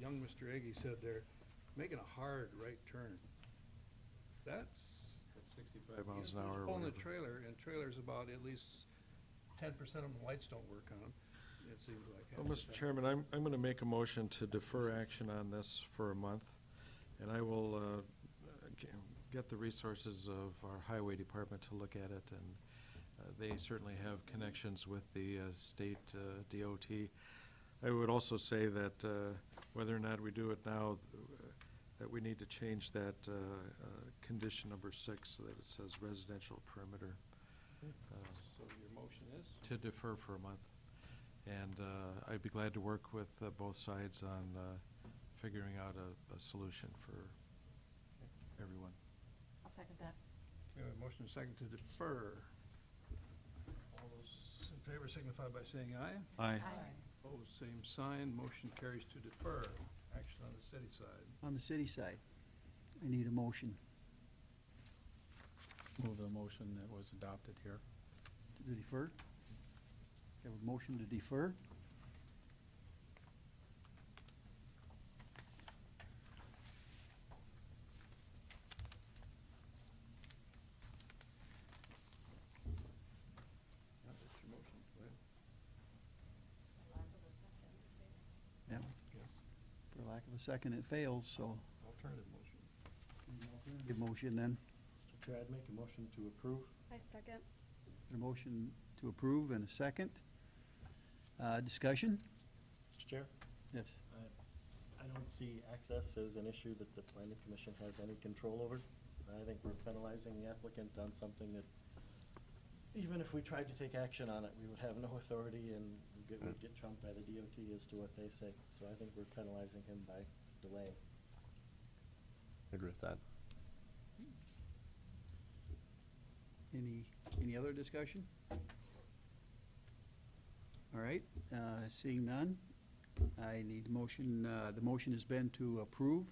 young Mr. Eggy said there, making a hard right turn. That's. At sixty-five he's- miles an he's hour. or Pulling a whatever. trailer, and trailers about at least ten percent of them, lights don't work on them, it seems like. Well, half the Mr. time. Chairman, I'm, I'm gonna make a motion to defer action on this for a month, and I will, uh, g- get the resources of our highway department to look at it, and uh, they certainly have connections with the, uh, state, uh, DOT. I would also say that, uh, whether or not we do it now, uh, that we need to change that, uh, uh, condition number six, so that it says residential perimeter. Uh, So your motion is? to defer for a month. And uh, I'd be glad to work with uh, both sides on uh, figuring out a, a solution for everyone. I'll second that. We have a motion and a second to defer. All those in favor signify by saying aye. Aye. Opposed, same sign, motion carries to defer. Action on the city side. On the city side, I need a motion Move the motion that was adopted here. to defer. Have a motion to defer. Yeah, that's your motion. Go ahead. Yeah, Yes. for lack of a second, it fails, so Alternative motion. give motion then. Mr. Chair, I'd make a motion to approve. I second. A motion to approve and a second. Uh, discussion? Mr. Chair? Yes. I- I don't see access as an issue that the planning commission has any control over. I think we're penalizing the applicant on something that, even if we tried to take action on it, we would have no authority and we'd get- we'd get trumped by the DOT as to what they say. So I think we're penalizing him by delaying. Agree with that. Any, any other discussion? All right, uh, seeing none, I need motion, uh, the motion has been to approve.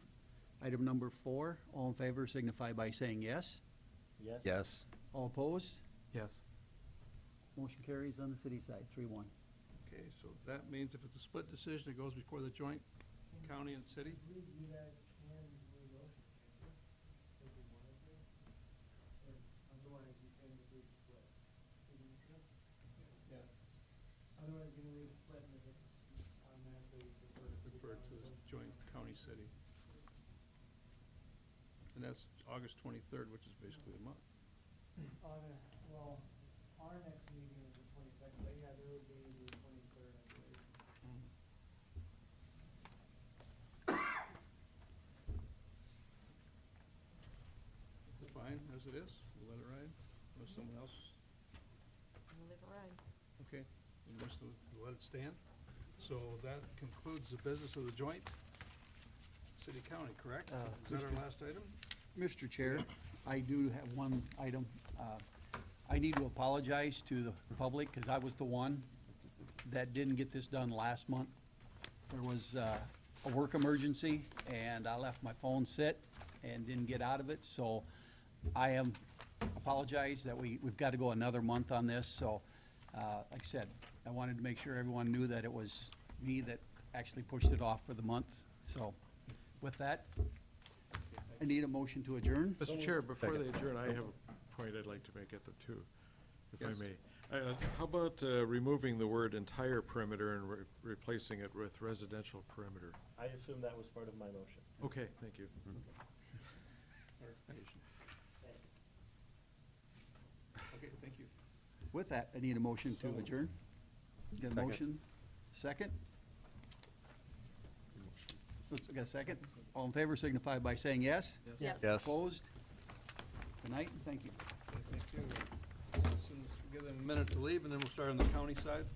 Item number four, all in favor signify by saying yes. Yes? Yes. All opposed? Yes. Motion carries on the city side, three one. Okay, so that means if it's a split decision, it goes before the joint county and city? you guys can do a motion, can't you? If you wanted to. Or otherwise you can just leave it split. Isn't it true? Yes. Otherwise you're gonna leave it split and if it's automatically deferred. to the Refer to the council. joint county, city. And that's August twenty-third, which is basically a month. On a, well, our next meeting is the twenty-second, but yeah, there would be the twenty-third, I believe. Fine, as it is, we'll let it ride, unless someone else, We'll leave it right. okay, unless we'll let it stand. So that concludes the business of the joint city-county, correct? Uh, Is that Mr. our last item? Mr. Chair, I do have one item. Uh, I need to apologize to the public because I was the one that didn't get this done last month. There was uh, a work emergency and I left my phone sit and didn't get out of it. So I am apologize that we, we've got to go another month on this. So, uh, like I said, I wanted to make sure everyone knew that it was me that actually pushed it off for the month. So with that, I need a motion to adjourn. Mr. Chair, before they adjourn, I have a point I'd like to make at the two, if I Yes. may. Uh, How about uh, removing the word entire perimeter and re- replacing it with residential perimeter? I assume that was part of my motion. Okay, thank you. Clarification. Okay, thank you. With that, I need a motion to adjourn. Got a motion? Second? Oops, I got a second? All in favor signify by saying yes. Yes. Yes. Opposed? Good night, and thank you. Thank you. Since we Give them a minute to leave, and then we'll start on the county side.